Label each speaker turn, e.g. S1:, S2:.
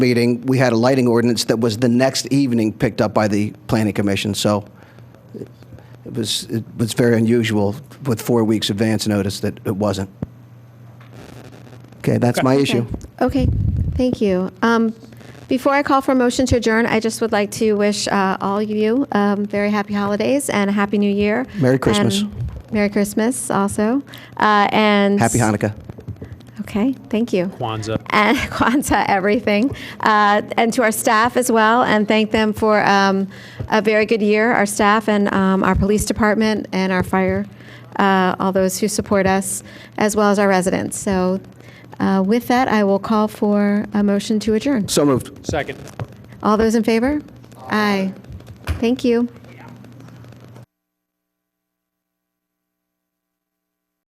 S1: meeting, we had a lighting ordinance that was the next evening picked up by the planning commission, so it was, it was very unusual with four weeks advance notice that it wasn't. Okay, that's my issue.
S2: Okay, thank you. Um, Before I call for a motion to adjourn, I just would like to wish uh, all of you um, very happy holidays and a happy new year.
S1: Merry Christmas.
S2: And Merry Christmas also. Uh, And.
S1: Happy Hanukkah.
S2: Okay, thank you.
S3: Kwanzaa.
S2: and Kwanzaa everything, uh, and to our staff as well, and thank them for um, a very good year, our staff and um, our police department and our fire, uh, all those who support us, as well as our residents. So uh, with that, I will call for a motion to adjourn.
S1: So moved.
S3: Second.
S2: All those in favor? Aye. Thank you.